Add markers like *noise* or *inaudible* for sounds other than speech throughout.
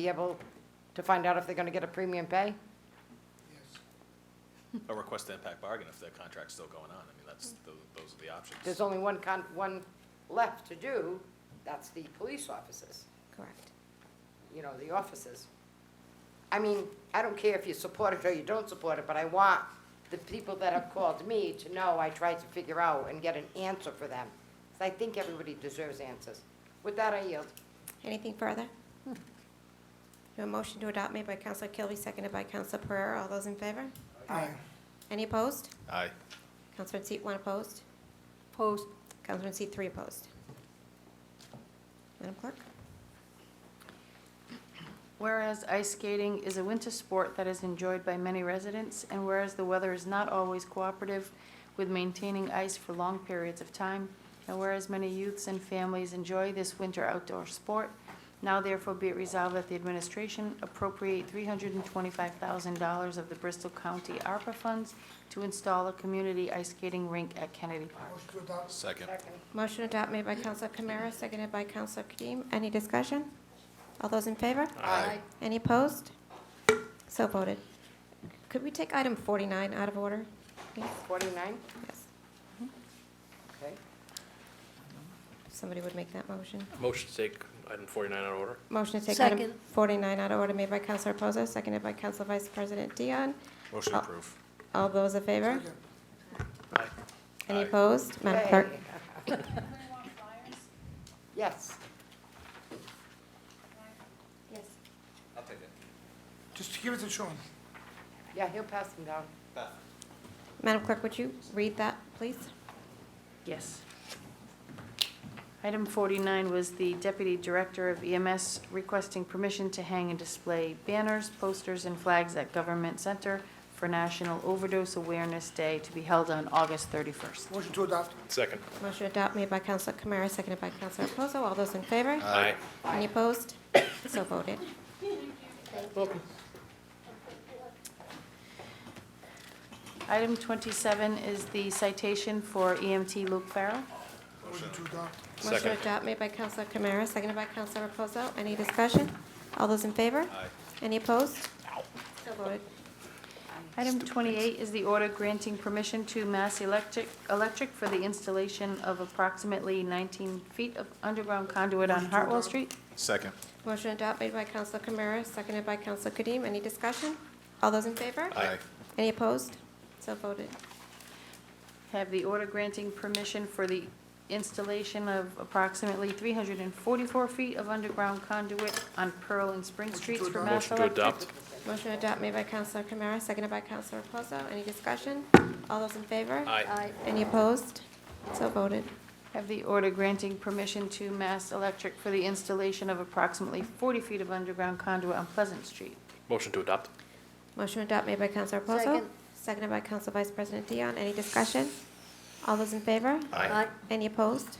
be able to find out if they're gonna get a premium pay? Or request to impact bargain if their contract's still going on. I mean, that's, tho- those are the There's options. only one con, one left to do, that's the police officers, Correct. you know, the officers. I mean, I don't care if you support it or you don't support it, but I want the people that have called me to know I tried to figure out and get an answer for them. 'Cause I think everybody deserves answers. With that, I yield. Anything further? Hmm. A motion to adopt made by Counselor Kilby, seconded by Counselor Pereira. All those in favor? Aye. Any opposed? Aye. Counselor in seat one opposed? Opposed. Counselor in seat three opposed? Madam Clerk? Whereas ice skating is a winter sport that is enjoyed by many residents, and whereas the weather is not always cooperative with maintaining ice for long periods of time, and whereas many youths and families enjoy this winter outdoor sport, now therefore be it resolved that the administration appropriate three hundred and twenty-five thousand dollars of the Bristol County ARPA funds to install a community ice skating rink at Kennedy Park. Motion to adopt. Second. Motion to adopt made by Counselor Kamara, seconded by Counselor Kadeem. Any discussion? All those in favor? Aye. Any opposed? So voted. Could we take item 49 out of order, please? Forty-nine, Yes. okay. If Somebody would make that motion. Motion to take item 49 out of order. Motion to take item Second. 49 out of order made by Counselor Reposo, seconded by Counselor Vice President Dion. Motion to approve. All those in favor? Second. Aye. Any Aye. opposed? Madam Clerk? Hey. *laughs* Yes. Yes. Just give it to Sean. Yeah, he'll pass them down. Madam Clerk, would you read that, please? Yes. Item 49 was the Deputy Director of EMS requesting permission to hang and display banners, posters, and flags at Government Center for National Overdose Awareness Day to be held on August 31st. Motion to adopt. Second. Motion to adopt made by Counselor Kamara, seconded by Counselor Reposo. All those in favor? Aye. Any opposed? So voted. Item 27 is the citation for EMT Luke Farrell. Motion to adopt. Motion to Second. adopt made by Counselor Kamara, seconded by Counselor Reposo. Any discussion? All those in favor? Aye. Any opposed? So voted. Item 28 is the order granting permission to Mass Electric Electric for the installation of approximately 19 feet of underground conduit on Hartwell Street. Second. Motion to adopt made by Counselor Kamara, seconded by Counselor Kadeem. Any discussion? All those in favor? Aye. Any opposed? So voted. Have the order granting permission for the installation of approximately 344 feet of underground conduit on Pearl and Spring Motion to Streets for adopt. Mass Motion to Electric. adopt. Motion to adopt made by Counselor Kamara, seconded by Counselor Reposo. Any discussion? All those in favor? Aye. Any opposed? So voted. Have the order granting permission to Mass Electric for the installation of approximately 40 feet of underground conduit on Pleasant Street. Motion to adopt. Motion to adopt made by Counselor Reposo, seconded by Counsel Vice President Dion. Any discussion? All those in favor? Aye. Any opposed?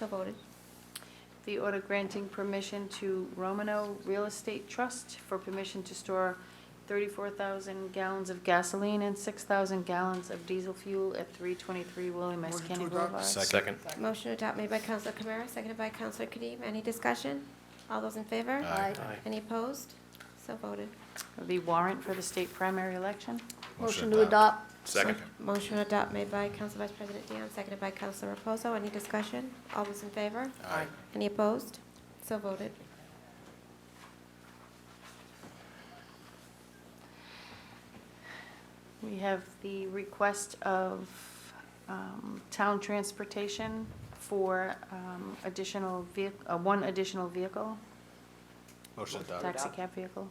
So voted. The order granting permission to Romano Real Estate Trust for permission to store 34,000 gallons of gasoline and 6,000 gallons of diesel fuel at 323 William S. Motion to Kennedy adopt. Boulevard. Second. Motion to adopt made by Counselor Kamara, seconded by Counselor Kadeem. Any discussion? All those in favor? Aye. Aye. Any opposed? So voted. The warrant for the state primary election. Motion to adopt. Second. Motion to adopt made by Counsel Vice President Dion, seconded by Counselor Reposo. Any discussion? All those in favor? Aye. Any opposed? So voted. We have the request of um, town transportation for um, additional vehi, uh, one additional vehicle, Motion to adopt. taxi cab vehicle.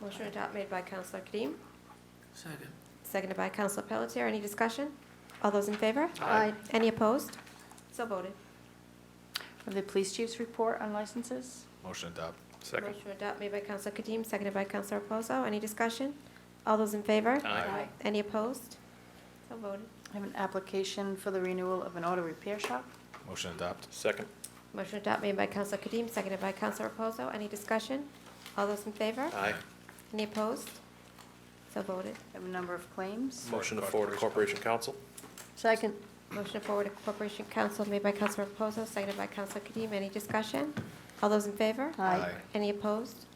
Motion to adopt made by Counselor Kadeem. Second. Seconded by Counselor Pelletier. Any discussion? All those in favor? Aye. Any opposed? So voted. The police chief's report on licenses. Motion to adopt. Second. Motion to adopt made by Counselor Kadeem, seconded by Counselor Reposo. Any discussion? All those in favor? Aye. Any opposed? So voted. I have an application for the renewal of an auto repair shop. Motion to adopt. Second. Motion to adopt made by Counselor Kadeem, seconded by Counselor Reposo. Any discussion? All those in favor? Aye. Any opposed? So voted. I have a number of claims. Motion to forward to Corporation Council. Second. Motion to forward to Corporation Council made by Counselor Reposo, seconded by Counselor Kadeem. Any discussion? All those in favor? Aye. Any opposed?